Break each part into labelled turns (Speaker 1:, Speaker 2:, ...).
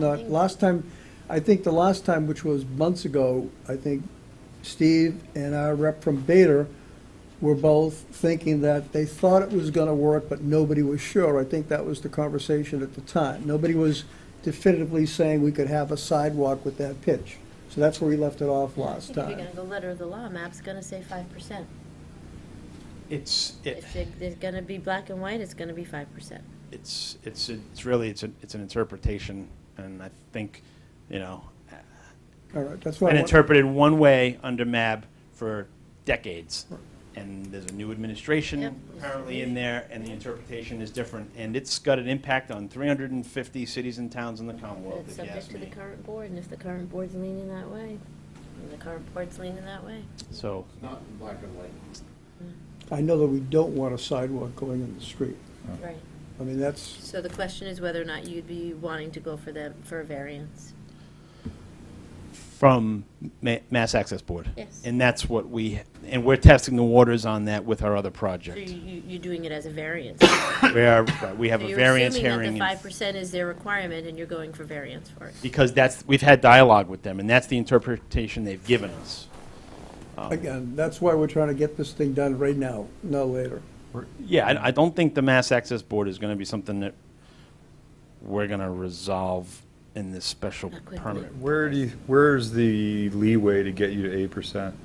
Speaker 1: Not, last time, I think the last time, which was months ago, I think Steve and our rep from Bader were both thinking that they thought it was gonna work, but nobody was sure. I think that was the conversation at the time. Nobody was definitively saying we could have a sidewalk with that pitch. So that's where we left it off last
Speaker 2: If you're
Speaker 1: time.
Speaker 2: gonna go letter of the law, map's gonna say five percent.
Speaker 3: It's, it,
Speaker 2: If it- it's gonna be black and white, it's gonna be five percent.
Speaker 3: it's, it's, it's really, it's, a- it's an interpretation, and I think, you know,
Speaker 1: All right, that's why,
Speaker 3: been
Speaker 1: I want-
Speaker 3: interpreted one way under MAB for decades, and there's a new
Speaker 2: Yep.
Speaker 3: administration apparently in there, and the interpretation is different, and it's got an impact on 350 cities and towns in the Commonwealth,
Speaker 2: It's
Speaker 3: if you
Speaker 2: subject
Speaker 3: ask
Speaker 2: to the
Speaker 3: me.
Speaker 2: current board, and if the current board's leaning that way, and the current board's leaning that way.
Speaker 3: So,
Speaker 4: Not in black and white.
Speaker 1: I know that we don't want a sidewalk going in the street.
Speaker 3: Oh.
Speaker 2: Right.
Speaker 1: I mean, that's,
Speaker 2: So the question is whether or not you'd be wanting to go for them, for a variance.
Speaker 3: from Ma- Mass Access Board.
Speaker 2: Yes.
Speaker 3: And that's what we, and we're testing the waters on that with our other
Speaker 2: So
Speaker 3: project.
Speaker 2: you, you- you're doing it as a variance. So
Speaker 3: We are, right, we have a
Speaker 2: you're
Speaker 3: variance
Speaker 2: assuming that
Speaker 3: hearing.
Speaker 2: The
Speaker 3: in-
Speaker 2: five percent is their requirement, and you're going for variance for it.
Speaker 3: Because that's, we've had dialogue with them, and that's the interpretation they've given us.
Speaker 1: again, that's why we're trying to get this thing done right now, no later.
Speaker 3: Yeah, I, I don't think the Mass Access Board is going to be something that we're going to resolve in this special
Speaker 2: Not quickly.
Speaker 3: permit.
Speaker 5: Where do you, where's the leeway to get you to eight percent?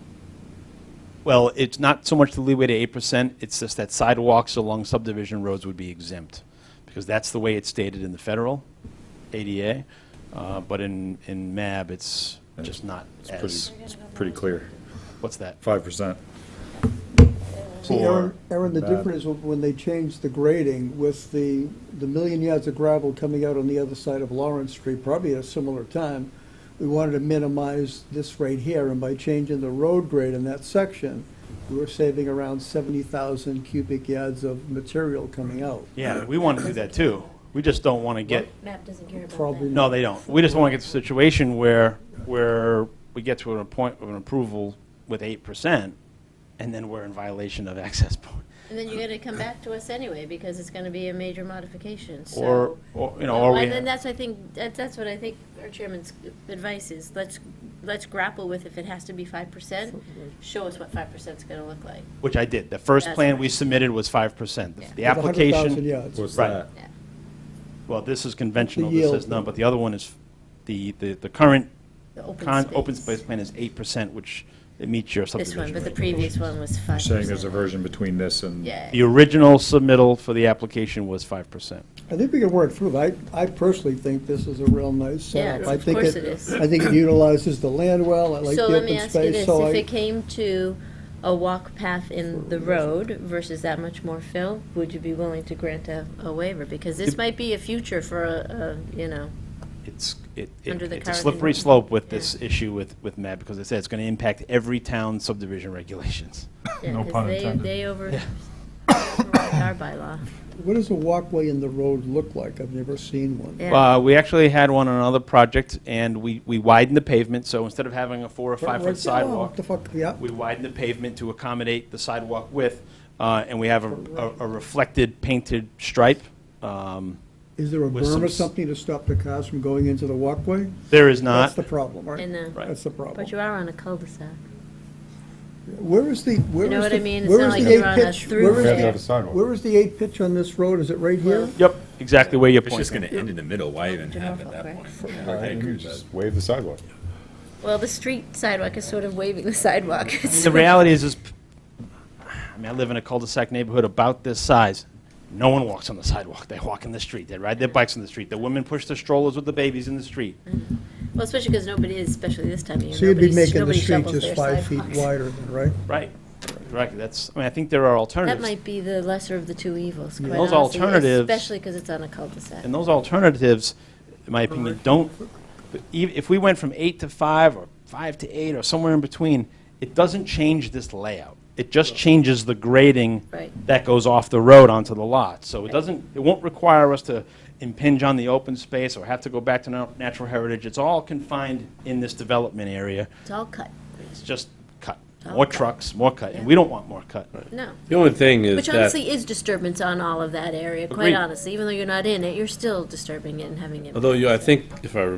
Speaker 3: Well, it's not so much the leeway to eight percent, it's just that sidewalks along subdivision roads would be exempt, because that's the way it's stated in the federal ADA, uh, but in, in MAB, it's just not as,
Speaker 5: It's pretty clear,
Speaker 3: what's that?
Speaker 5: five percent.
Speaker 1: See, Aaron, Aaron, the
Speaker 5: that.
Speaker 1: difference was when they changed the grading with the, the million yards of gravel coming out on the other side of Lawrence Street, probably at a similar time, we wanted to minimize this right here, and by changing the road grade in that section, we were saving around seventy thousand cubic yards of material coming out.
Speaker 3: Yeah, we want to do that too, we just don't want to get
Speaker 2: Map doesn't care about
Speaker 1: Probably
Speaker 2: that.
Speaker 3: No, they don't. We just want to get to a situation where, where we get to a point of an approval with eight percent, and then we're in violation of access point.
Speaker 2: And then you're gonna come back to us anyway, because it's gonna be a major modification, so.
Speaker 3: Or, or, you know, or we,
Speaker 2: And then that's, I think, that- that's what I think our chairman's advice is, let's, let's grapple with if it has to be five percent, show us what five percent's gonna look like.
Speaker 3: which I did. The first
Speaker 2: That's
Speaker 3: plan we
Speaker 2: right.
Speaker 3: submitted was five percent.
Speaker 2: Yeah.
Speaker 3: The
Speaker 1: With 100,000
Speaker 3: application,
Speaker 1: yards.
Speaker 5: What's
Speaker 3: Right.
Speaker 5: that?
Speaker 2: Yeah.
Speaker 3: well, this is conventional,
Speaker 1: The
Speaker 3: this
Speaker 1: yield.
Speaker 3: is none, but the other one is, the, the, the current
Speaker 2: The open
Speaker 3: con,
Speaker 2: space.
Speaker 3: open space plan is eight percent, which it meets your
Speaker 2: This one,
Speaker 3: subdivision
Speaker 2: but the
Speaker 3: rate.
Speaker 2: previous one was five
Speaker 5: You're
Speaker 2: percent.
Speaker 5: saying there's a version between this and.
Speaker 2: Yeah.
Speaker 3: The original submittal for the application was five percent.
Speaker 1: I think we can work through it. I, I personally think this is a real nice setup.
Speaker 2: Yeah,
Speaker 1: I
Speaker 2: of
Speaker 1: think
Speaker 2: course it is.
Speaker 1: I think it utilizes the land well, I like the
Speaker 2: So let me
Speaker 1: open
Speaker 2: ask you
Speaker 1: space,
Speaker 2: this,
Speaker 1: so
Speaker 2: if
Speaker 1: I,
Speaker 2: it came to a walk path in the road versus that much more fill, would you be willing to grant a, a waiver? Because this might be a future for a, a, you know,
Speaker 3: it's, it, it-
Speaker 2: Under the
Speaker 3: it's a
Speaker 2: current
Speaker 3: slippery
Speaker 2: environment.
Speaker 3: slope with this issue with, with MAB, because it said it's going to impact every town subdivision regulations.
Speaker 2: yeah,
Speaker 5: No
Speaker 2: 'cause
Speaker 5: pun
Speaker 2: they,
Speaker 5: intended.
Speaker 2: they over, override our bylaw.
Speaker 1: what does a walkway in the road look like? I've never seen one.
Speaker 2: Yeah.
Speaker 3: Uh, we actually had one on another project, and we, we widened the pavement, so instead of having a four or
Speaker 1: Right
Speaker 3: five-foot
Speaker 1: there, oh, what
Speaker 3: sidewalk,
Speaker 1: The fuck, yeah.
Speaker 3: we widened the pavement to accommodate the sidewalk width, uh, and we have a, a- a reflected painted stripe. Um,
Speaker 1: Is there a
Speaker 3: With
Speaker 1: berm
Speaker 3: some
Speaker 1: or
Speaker 3: s-
Speaker 1: something to stop the cars from going into the walkway?
Speaker 3: There is
Speaker 1: That's
Speaker 3: not,
Speaker 1: the problem, right?
Speaker 2: And the- Right.
Speaker 1: That's the problem.
Speaker 2: But you are on a cul-de-sac.
Speaker 1: Where is the, where is the?
Speaker 2: You know what I mean? It's
Speaker 1: where
Speaker 2: not
Speaker 1: is
Speaker 2: like
Speaker 1: the
Speaker 2: you're
Speaker 1: eight
Speaker 2: on a
Speaker 1: pitch-
Speaker 2: through
Speaker 1: where is
Speaker 2: there.
Speaker 1: the-
Speaker 2: You have to have a
Speaker 1: Where is the eight pitch on this road? Is it right here?
Speaker 3: yep, exactly where you're
Speaker 4: It's just gonna
Speaker 3: pointing.
Speaker 4: end in the middle, why even
Speaker 2: Turn
Speaker 4: have
Speaker 2: off
Speaker 4: it
Speaker 2: up,
Speaker 4: at that
Speaker 2: right?
Speaker 4: point?
Speaker 5: I agree with that. Wave the sidewalk.
Speaker 2: Well, the street sidewalk is sort of waving the sidewalk.
Speaker 3: The reality is, is, I mean, I live in a cul-de-sac neighborhood about this size. No one walks on the sidewalk. They walk in the street. They ride their bikes in the street. The women push their strollers with the babies in the street.
Speaker 2: Well, especially because nobody is, especially this time of year.
Speaker 1: So you'd be
Speaker 2: nobody's-
Speaker 1: making the
Speaker 2: nobody
Speaker 1: street
Speaker 2: shovels
Speaker 1: just
Speaker 2: their
Speaker 1: five feet
Speaker 2: sidewalks.
Speaker 1: wider, then, right?
Speaker 3: Right. Correct. That's, I mean, I think there are alternatives.
Speaker 2: That might be the lesser of the two evils, quite
Speaker 3: Those
Speaker 2: honestly,
Speaker 3: alternatives-
Speaker 2: Especially because it's on a cul-de-sac.
Speaker 3: And those alternatives, in my opinion, don't, e- if we went from eight to five, or five to eight, or somewhere in between, it doesn't change this layout. It just changes the grading
Speaker 2: Right.
Speaker 3: that goes off the road onto the lot. So it doesn't, it won't require us to impinge on the open space or have to go back to nat- natural heritage. It's all confined in this development area.
Speaker 2: It's all cut.
Speaker 3: It's just cut.
Speaker 2: All
Speaker 3: more trucks, more cut, and we don't want more cut.
Speaker 2: No.
Speaker 6: The only thing is
Speaker 2: Which
Speaker 6: that,
Speaker 2: honestly is disturbance on all of that area,
Speaker 3: Agreed.
Speaker 2: quite honestly. Even though you're not in it, you're still disturbing it and having it.
Speaker 6: although you, I think, if I